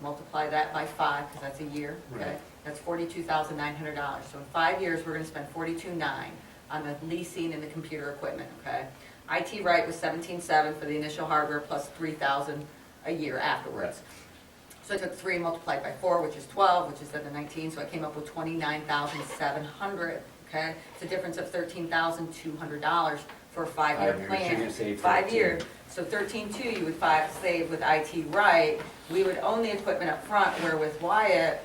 multiply that by five, because that's a year, okay? Right. That's forty-two thousand nine hundred dollars. So in five years, we're gonna spend forty-two nine on the leasing and the computer equipment, okay? IT right was seventeen seven for the initial hardware plus three thousand a year afterwards. So I took three and multiplied by four, which is twelve, which is then the nineteen, so I came up with twenty-nine thousand seven hundred, okay? It's a difference of thirteen thousand two hundred dollars for a Five five-year years, you're plan. gonna save Five 13. years, so thirteen-two, you would five, save with IT right, we would own the equipment up front. where with Wyatt,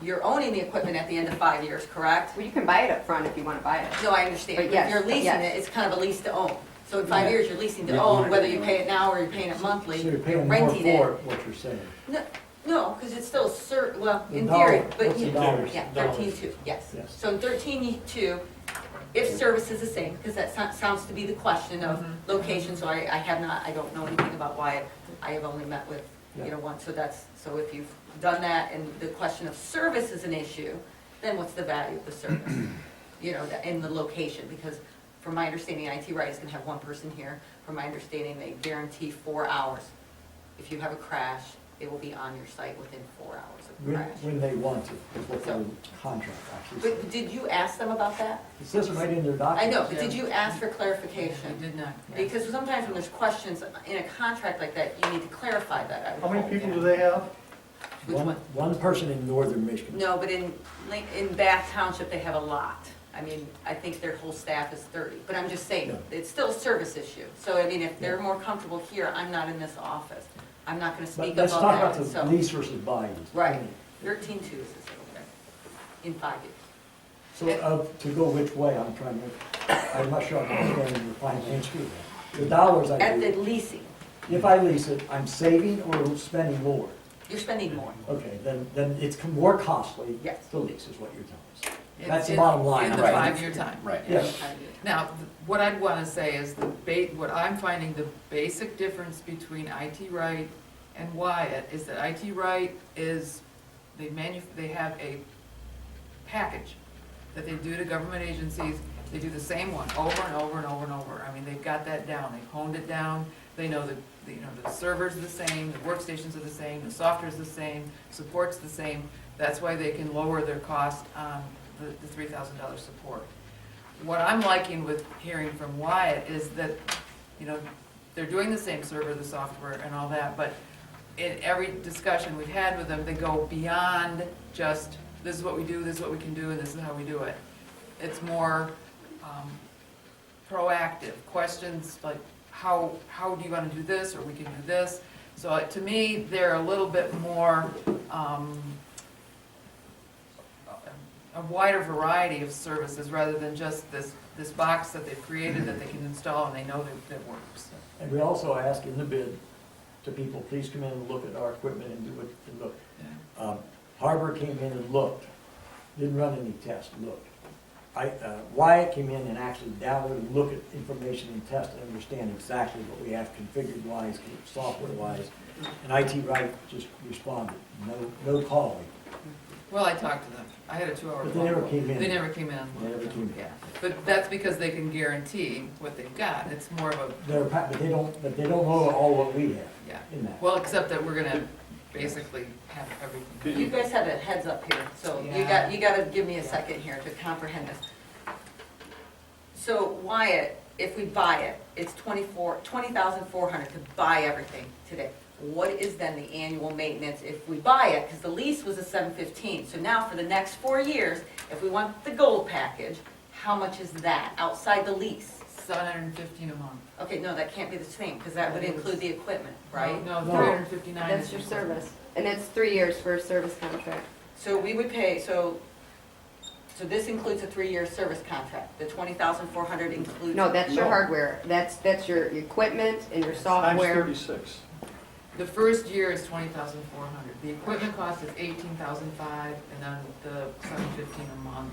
you're owning the equipment at the end of five years, correct? Well, you can buy it up front if you want to buy it. No, I understand, But but if yes, you're leasing yes. it, it's kind of a lease to own. So in five Yeah. years, you're leasing to Yeah. own, whether you pay it now or you're paying it monthly, So you're you're paying more renting it. for it, what you're saying. No, no, because it's still cert, well, The in dollar, theory, but what's the you, dollars? yeah, Dollars. thirteen-two, yes. Yes. So in thirteen-two, if service is the same, because that so- sounds to be the question of Mm-hmm. location, so I, I have not, I don't know anything about Wyatt. I have only met with, you Yeah. know, one, so that's, so if you've done that and the question of service is an issue, then what's the value of the service? You know, the- and the location, because from my understanding, IT Right is gonna have one person here. From my understanding, they guarantee four hours. If you have a crash, it will be on your site within four hours of the When, crash. when they want to, is what the So- contract actually says. But did you ask them about that? It says right in their I document. know, but did you ask for clarification? Did not. Because sometimes when there's questions in a contract like that, you need to clarify that. I would How many hope. people do they have? Which One, one? one person in northern Michigan. No, but in, Link- in Bath Township, they have a lot. I mean, I think their whole staff is thirty, but I'm just saying, No. it's still a service issue. So I mean, if they're Yeah. more comfortable here, I'm not in this office. I'm not gonna speak about But let's talk that, about so. the lease versus buy. Right, thirteen two is this over there, in five years. So, uh, to go which way, I'm trying to, I'm not sure I'm understanding the financial. The dollars I At the do, leasing, if I lease it, I'm saving or spending more? you're spending more. Okay, then, then it's co- more costly Yes. to lease is what you're telling us. It's That's the in- bottom line, In the right. five-year time. Right. Yes. Now, th- what I'd want to say is the ba, what I'm finding the basic difference between IT Right and Wyatt is that IT Right is, they manu, they have a package that they do to government agencies. They do the same one over and over and over and over. I mean, they've got that down. They've honed it down. They know that, that, you know, the servers are the same, the workstations are the same, the software's the same, support's the same. That's why they can lower their cost on the, the three thousand dollar support. What I'm liking with hearing from Wyatt is that, you know, they're doing the same server, the software and all that, but in every discussion we've had with them, they go beyond just, this is what we do, this is what we can do, and this is how we do it. It's more um, proactive, questions like, how, how do you want to do this, or we can do this? So uh, to me, they're a little bit more, um, a wider variety of services rather than just this, this box that they've created that they can install and they know that, that works. And we also ask in the bid to people, please come in and look at our equipment and do what you can look. Um, Harbor came in and looked, didn't run any tests, looked. I, uh, Wyatt came in and actually downloaded, and looked at information and test and understand exactly what we have configured wise, software wise. And IT Right just responded, no, no calling. Well, I talked to them. I had a two-hour. But they never call. came in. They never came in. They never came in. Yeah, but that's because they can guarantee what they've got. It's more of a, They're, pa- but they don't, but they don't know all what we have yeah. in that. Well, except that we're gonna basically have everything. You guys have a heads up here, so you Yeah. got, you gotta give me a second here to comprehend this. So Wyatt, if we buy it, it's twenty-four, twenty thousand four hundred to buy everything today. What is then the annual maintenance if we buy it? Because the lease was a seven fifteen, so now for the next four years, if we want the gold package, how much is that outside the lease? Seven hundred and fifteen a month. Okay, no, that can't be the same, because that would include the equipment, right? No, No. three hundred and fifty-nine. That's your service. And it's three years for a service contract. So we would pay, so, so this includes a three-year service contract, the twenty thousand four hundred includes. No, that's your No. hardware. That's, that's your equipment and your Times software. thirty-six. The first year is twenty thousand four hundred, the equipment cost is eighteen thousand five, and then the seven fifteen a month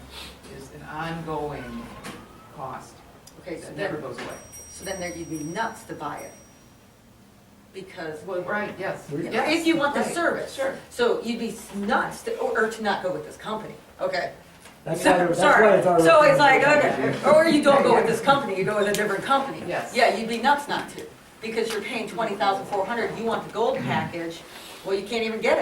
is an ongoing cost. Okay, so It never then, goes away. so then there, you'd be nuts to buy it, because, Well, right, yes, We're- yes. if you want the right, service. Sure. So you'd be nuts to, or or to not go with this company, okay? That's why, So- that's why Sorry, it's our. so it's like, okay, or you don't go with this company, you go with a different company. Yes. Yeah, you'd be nuts not to, because you're paying twenty thousand four hundred, you want the gold package, well, you can't even get it.